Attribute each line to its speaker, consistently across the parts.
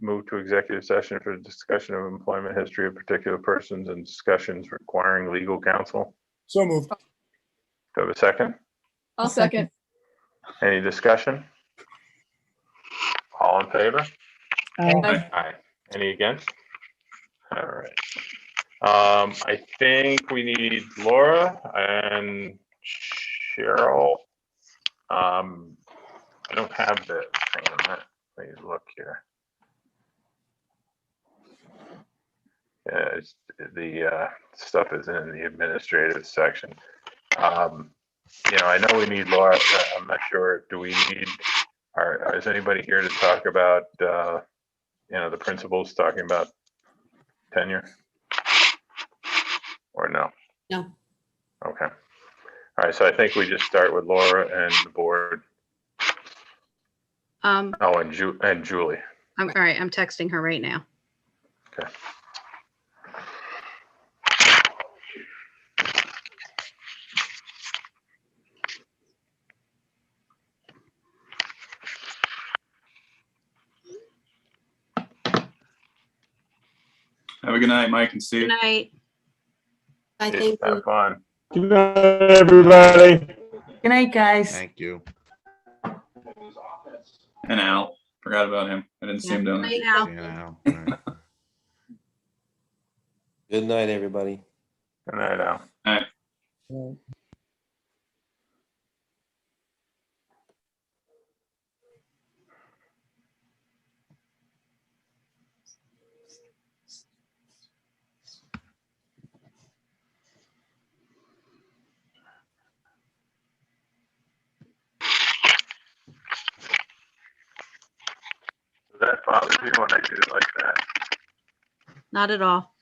Speaker 1: move to executive session for the discussion of employment history of particular persons and discussions requiring legal counsel.
Speaker 2: So moved.
Speaker 1: Do I have a second?
Speaker 3: I'll
Speaker 4: I'll second.
Speaker 3: second.
Speaker 1: Any discussion? All in favor?
Speaker 4: Aye.
Speaker 3: Aye.
Speaker 1: Aye. Any against? All right. Um, I think we need Laura and Cheryl. Um, I don't have the thing on that. Let me look here. Yeah, it's, the, uh, stuff is in the administrative section. Um, you know, I know we need Laura, but I'm not sure, do we need, are, is anybody here to talk about, uh, you know, the principals talking about tenure? Or no?
Speaker 5: No.
Speaker 1: Okay. All right, so I think we just start with Laura and the board.
Speaker 5: Um,
Speaker 1: Oh, and Ju, and Julie.
Speaker 5: I'm, all right, I'm texting her right now.
Speaker 6: Have a good night, Mike and
Speaker 5: Good
Speaker 6: Steve.
Speaker 5: night.
Speaker 1: I
Speaker 5: I
Speaker 1: think
Speaker 5: think
Speaker 1: Have fun.
Speaker 7: Good night, everybody.
Speaker 4: Good night, guys.
Speaker 8: Thank you.
Speaker 6: And Al. Forgot about him. I didn't see him down there.
Speaker 5: Right now.
Speaker 8: You know, right.
Speaker 9: Good night, everybody.
Speaker 1: Good night, Al. Does that bothers you when I do it like that?
Speaker 5: Not at all.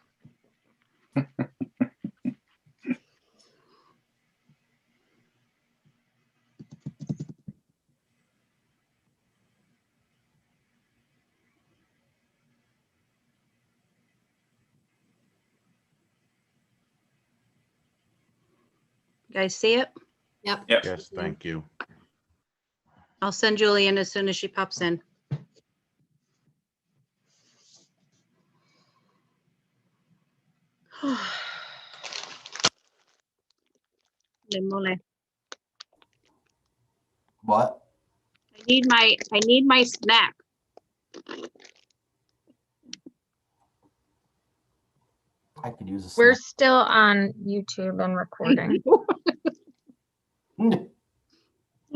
Speaker 5: You Guys see it?
Speaker 3: Yep.
Speaker 8: Yes, thank you.
Speaker 5: I'll send Julian as soon as she pops in. Limole.
Speaker 9: What?
Speaker 5: I need my, I need my snack.
Speaker 9: I could use a.
Speaker 10: We're still on YouTube and recording.
Speaker 9: snack.